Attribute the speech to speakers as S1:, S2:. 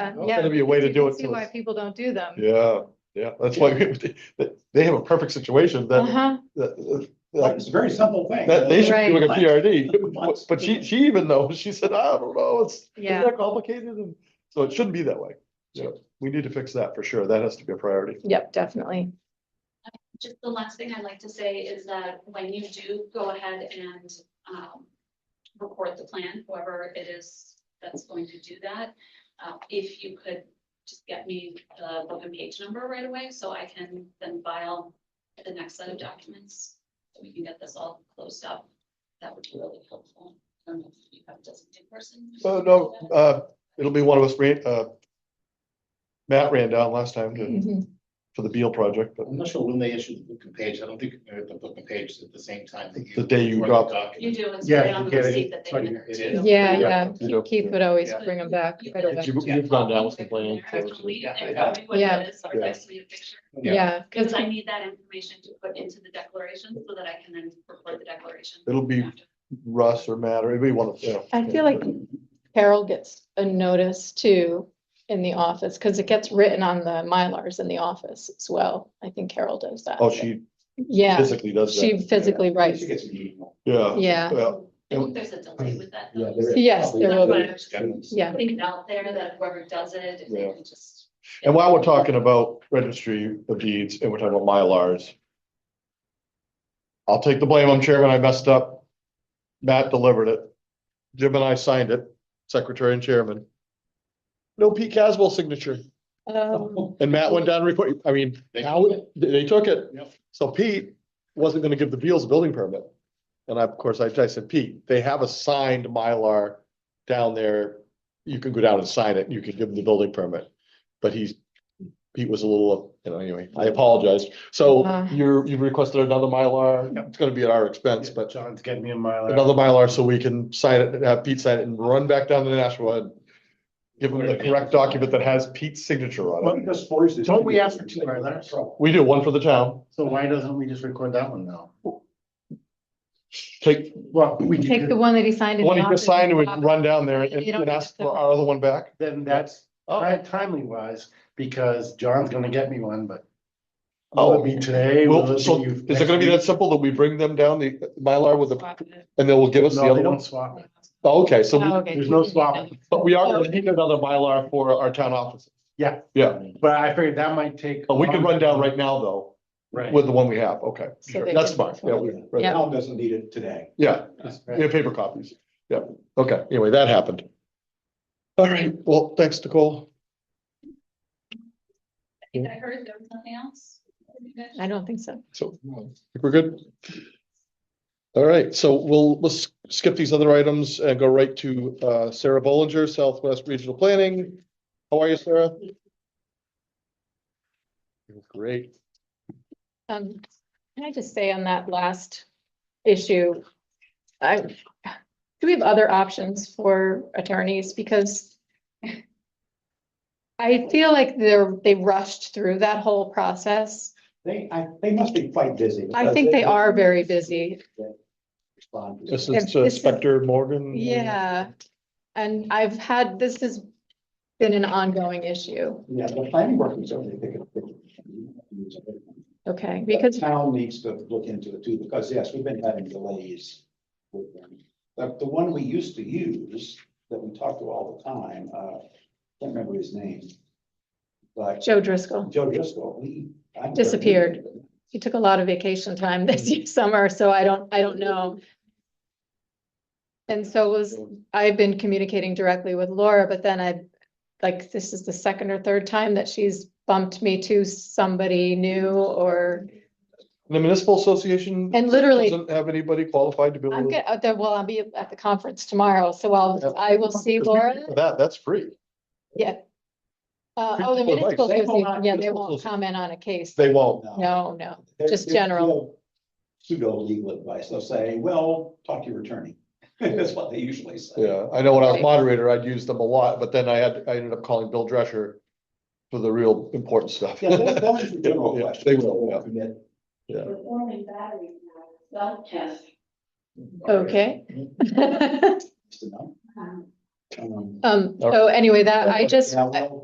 S1: Yeah,
S2: Well,
S1: Um, yeah.
S2: that'd Oh, be a way to
S1: you
S2: do
S1: can
S2: it
S1: See
S2: so
S1: why
S2: it's-
S1: people don't do them.
S2: Yeah, yeah, that's why we- they, they have a perfect situation that,
S1: Uh-huh,
S2: that,
S3: Like,
S2: that-
S3: It's a very simple thing.
S2: that they should be doing a
S3: Right.
S2: PRD.
S3: Months.
S2: But she, she even knows, she said, I don't know, it's,
S1: Yeah.
S2: isn't that complicated? And so it shouldn't be that way. Yeah, we need to fix that for sure. That has to be a priority.
S1: yep, definitely.
S4: Just the last thing I'd like to say is that when you do go ahead and um. Record the plan, whoever it is that's going to do that, uh, if you could just get me the book and page number right away, so I can then file. The next set of documents, so we can get this all closed up, that would be really helpful. I don't know if you have a designated person.
S2: Oh, no, uh, it'll be one of us, ran- uh, Matt ran down last time to,
S1: Mhm.
S2: for the Beal project, but
S5: I'm not sure when they issued the book and page. I don't think they're at the book and page at the same time that you.
S2: The day you
S5: or the
S2: drop-
S4: You
S5: document.
S4: do, it's
S3: Yeah,
S4: right on
S3: you
S4: the
S3: get it.
S4: receipt that they.
S5: Sorry,
S4: entered,
S5: it
S4: too.
S5: is.
S1: Yeah,
S2: Yeah.
S1: yeah, Keith- Keith would always
S5: Yeah.
S1: bring them back.
S4: You
S1: quite a
S4: can-
S1: bit.
S2: You- You've gone down with the plan.
S4: I have to leave and
S5: Yeah.
S4: tell me what it
S1: Yeah.
S4: is, or
S2: Yeah.
S4: text me a picture.
S5: Yeah.
S1: Yeah,
S4: Because I need that information to put into the declaration so that I can then record the declaration.
S2: It'll be- Russ or Matt or anybody want to, you know.
S1: I feel like Carol gets a notice too in the office, because it gets written on the Mylars in the office as well. I think Carol does that.
S2: Oh, she
S1: Yeah,
S2: physically does that.
S1: she physically writes.
S5: She gets an email.
S2: Yeah.
S1: Yeah,
S2: Yeah.
S4: I think there's a delay with that. though.
S5: Yeah, there is.
S1: yes, there will be.
S5: It's got it.
S1: Yeah,
S4: Putting it out there that whoever does it, if
S2: Yeah.
S4: they can just.
S2: And while we're talking about registry of deeds and we're talking about Mylars. I'll take the blame. I'm chairman. I messed up. Matt delivered it. Jim and I signed it, secretary and chairman. No Pete Caswell signature.
S1: um,
S2: And Matt went down and reported, I mean,
S5: They-
S2: now they they took it.
S5: Yep.
S2: So Pete wasn't gonna give the Beals building permit. And I, of course, I, I said, Pete, they have a signed Mylar down there. You can go down and sign it. You can give them the building permit. But he's, Pete was a little, you know, anyway, I apologize. So
S1: Uh.
S2: you're, you've requested another Mylar.
S3: Yep.
S2: It's gonna be at our expense,
S3: But
S2: but
S3: John's getting me in my. lap.
S2: another Mylar so we can sign it, and have Pete sign it and run back down to Nashua and give them the correct document that has Pete's signature on it.
S3: But this force is-
S6: Don't we ask for two Mylars?
S2: We do one for the town.
S6: So why doesn't we just record that one now?
S2: Take
S6: Well, we
S1: take the one that he signed. in the
S2: one he just
S1: office.
S2: signed and we run down there and
S1: You don't
S2: and
S1: need
S2: ask
S1: to-
S2: for our other one back.
S6: Then that's
S2: Oh.
S6: ti- timely wise, because John's gonna get me one, but. Will it be today? Will
S2: Oh. Well,
S6: it
S2: so
S6: be
S2: is
S6: next
S2: it gonna be that
S6: week?
S2: simple that we bring them down the Mylar with the,
S1: Swap it.
S2: and they will give us the
S6: No, they
S2: other one?
S6: don't swap it.
S2: Oh, Okay, so,
S1: Oh,
S2: we-
S1: okay.
S6: There's no swapping,
S2: but we are gonna need another Mylar for our town office.
S6: Yeah.
S2: Yeah,
S6: but I figured that might take.
S2: but we can run down right now though,
S6: Right.
S2: with the one we have. Okay,
S1: So
S2: sure.
S1: they
S2: That's
S1: can-
S2: fine. Yeah, we- right.
S1: Yeah.
S3: Town doesn't need it today.
S2: Yeah,
S6: Right.
S2: yeah, paper copies. Yeah, okay. Anyway, that happened. All right, well, thanks, Nicole.
S4: I think I heard there was nothing else. You guys-
S1: I don't think so.
S2: So think we're good. All right, so we'll, let's skip these other items and go right to uh, Sarah Bollinger, Southwest Regional Planning. How are you, Sarah? You're Great.
S1: Um, can I just say on that last issue? I, do we have other options for attorneys? Because I feel like they're, they rushed through that whole process.
S3: They, I, they must be quite busy.
S1: I think they are very busy.
S3: Respond to
S2: This
S3: it.
S2: is uh, Spector Morgan.
S1: Yeah. And I've had, this has been an ongoing issue.
S3: Yeah, the planning work is certainly picking up.
S1: Okay,
S3: The
S1: because,
S3: Town needs to look into it too, because yes, we've been having delays with them. The, the one we used to use, that we talked to all the time, uh, can't remember his name. But
S1: Joe Driscoll,
S3: Joe Driscoll, we. I'm-
S1: Disappeared. he took a lot of vacation time this summer, so I don't, I don't know. And so was, I've been communicating directly with Laura, but then I, like, this is the second or third time that she's bumped me to somebody new or,
S2: The Municipal Association
S1: and literally,
S2: doesn't have anybody qualified to be.
S1: I'm
S2: able to-
S1: get, out there, well, I'll be at the conference tomorrow, so I'll, I will see Laura.
S2: That, that's free.
S1: Uh, oh, the
S2: Well, right,
S1: municipal
S3: they will
S1: association,
S3: not-
S1: yeah, they
S2: municipal
S1: won't
S2: association.
S1: comment on a case.
S2: They won't.
S1: No, no,
S3: They're-
S1: just
S3: they're
S1: general.
S3: Pseudo legal advice. They'll say, well, talk to your attorney. That's what they usually say.
S2: Yeah, I know when I was
S1: Right.
S2: moderator, I'd use them a lot, but then I had, I ended up calling Bill Drescher for the real important stuff.
S3: Yeah, those, those are general
S2: Yeah,
S3: questions.
S2: They will, yeah.
S3: Commit
S4: Performing battery self-test.
S1: okay.
S3: to know.
S4: Um,
S3: Um,
S1: Um,
S2: All right.
S1: so anyway, that, Uh, I just,
S3: Yeah, well,